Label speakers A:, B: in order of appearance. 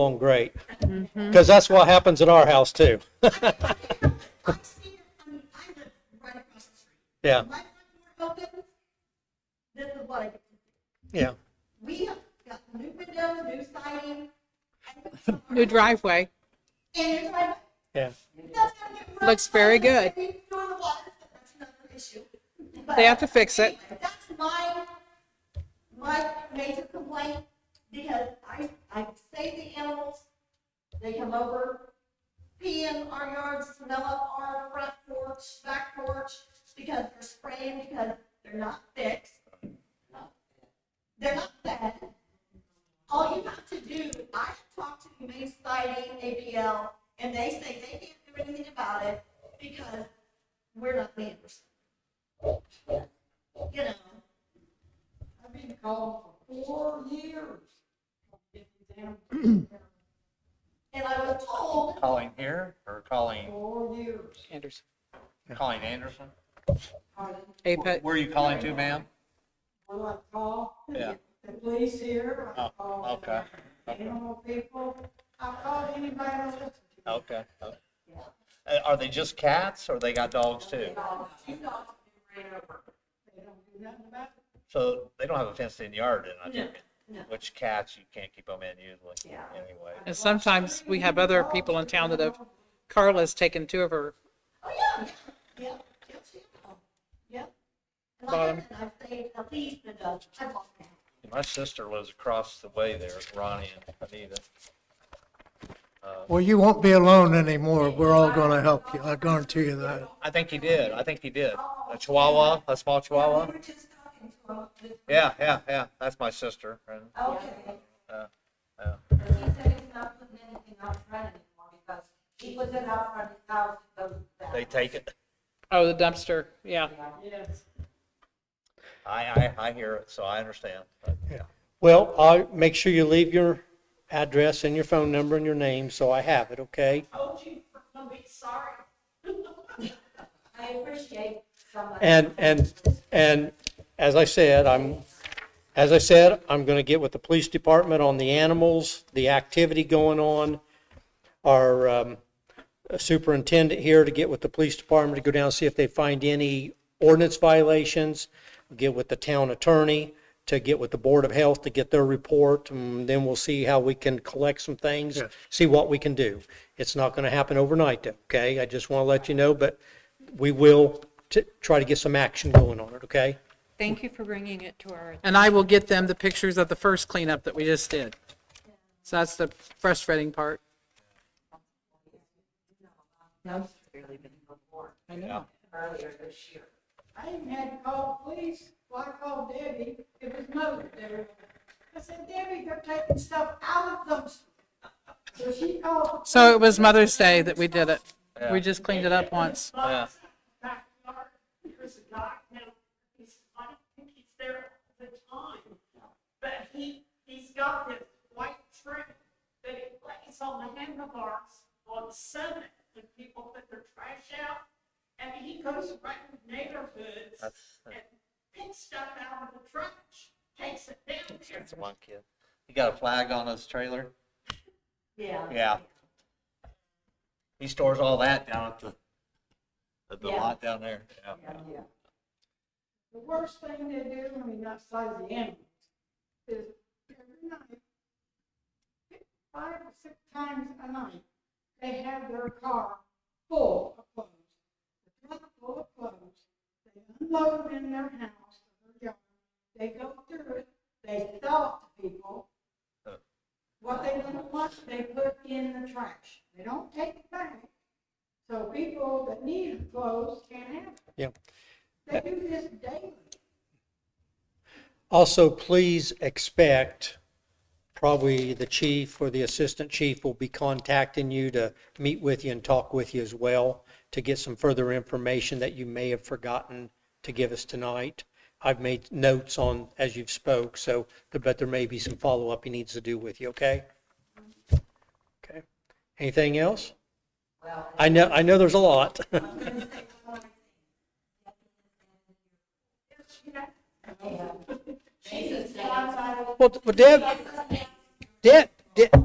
A: along great.
B: Mm-hmm.
A: Because that's what happens in our house too.
B: I see, I mean, I live right across the street.
A: Yeah,
B: When My front door opens, this is what I get to see.
A: yeah.
B: We have got new windows, new siding. and-
C: New driveway.
B: And you're like,
A: Yeah.
B: that's gonna get rough.
C: Looks very good.
B: We throw the water, but that's another issue. But
C: They have to fix it.
B: anyway, That's my, my major complaint, because I, I save the animals, they come over, pee in our yard, smell up our front porch, back porch, because they're spraying, because they're not fixed. They're not fed. All you have to do, I have talked to Humane Society, ABL, and they say they can't do anything about it because we're not neighbors. You know,
D: I've been called for four years. Get these animals
B: and I was told, oh,
E: Colleen here or Colleen,
D: Four years.
C: Anderson.
E: Colleen Anderson?
D: Pardon?
C: Apex.
E: Where are you calling to, ma'am?
D: Well, I call
E: Yeah.
D: the police here, I
E: Oh,
D: call
E: okay,
D: the
E: okay.
D: animal people, I call anybody who listens to me.
E: Okay. okay. Uh, Are they just cats or they got dogs too?
D: Two dogs ran over. They don't do nothing about it.
E: So they don't have a fenced in yard, then I take it?
B: No, no.
E: Which cats you can't keep them in usually,
B: Yeah.
E: anyway.
C: And sometimes we have other people in town that have, Carla's taken two of her.
B: oh, yeah, yeah, yeah, yeah, she will, yeah. And like I
C: Bottom.
B: said, I've saved at least a dozen, I've lost count.
E: My sister lives across the way there, Ronnie and Anita.
F: Well, you won't be alone anymore. We're all going to help you. I guarantee you that.
E: I think he did, I think he did. A chihuahua, a small chihuahwa?
D: We were just talking to him, this-
E: Yeah, yeah, yeah, that's my sister. And
D: okay,
E: uh,
D: and he said he's not putting anything out front anymore because he was in out front of his house, it goes back.
E: They take it.
C: Oh, the dumpster. Yeah.
D: Yes.
E: I, I, I hear it, so I understand. But, yeah.
A: Well, I, make sure you leave your address and your phone number and your name, so I have it, okay?
D: Told you, I'm gonna be sorry. I appreciate somebody.
A: And, and, and as I said, I'm, as I said, I'm gonna get with the police department on the animals, the activity going on. Our um, superintendent here to get with the police department to go down and see if they find any ordinance violations. Get with the town attorney to get with the Board of Health to get their report, and then we'll see how we can collect some things, see what we can do. It's not gonna happen overnight, though, okay? I just wanna let you know, but we will t- try to get some action going on it, okay?
G: Thank you for bringing it to our,
C: And I will get them the pictures of the first cleanup that we just did. So that's the frustrating part. I know.
D: earlier this year. I even had to call the police, well, I called Debbie, it was mother there. I said, Debbie, they're taking stuff out of those. So she called. the
C: So it
D: police.
C: was Mother's Day that we did it.
E: Yeah.
C: We just cleaned it up once.
E: Yeah.
H: backyard, there's a guy now, he's, I don't think he's there all the time. But he, he's got this white trim that he lays on the handlebars on Senate when people put their trash out. And he goes around neighborhoods and
E: That's-
H: picks stuff out of the trash, takes it down there.
E: That's one kid. He got a flag on his trailer?
B: Yeah.
E: Yeah. He stores all that down at the, at the
B: Yeah.
E: lot down there. Yeah.
D: The worst thing they do, I mean, not size the animals, is every night, five or six times a night, they have their car full of clothes. The truck full of clothes, they unload them in their house, their yard, they go through it, they sell it to people.
E: Huh.
D: What they don't want, they put in the trash, they don't take it back. So people that need clothes can't have it.
A: Yeah.
D: They do this daily.
A: Also, please expect, probably the chief or the assistant chief will be contacting you to meet with you and talk with you as well, to get some further information that you may have forgotten to give us tonight. I've made notes on, as you've spoke, so, but there may be some follow-up he needs to do with you, okay? Okay. Anything else? I know, I know there's a lot.
B: Jesus.
A: Well, Deb, Deb, Deb,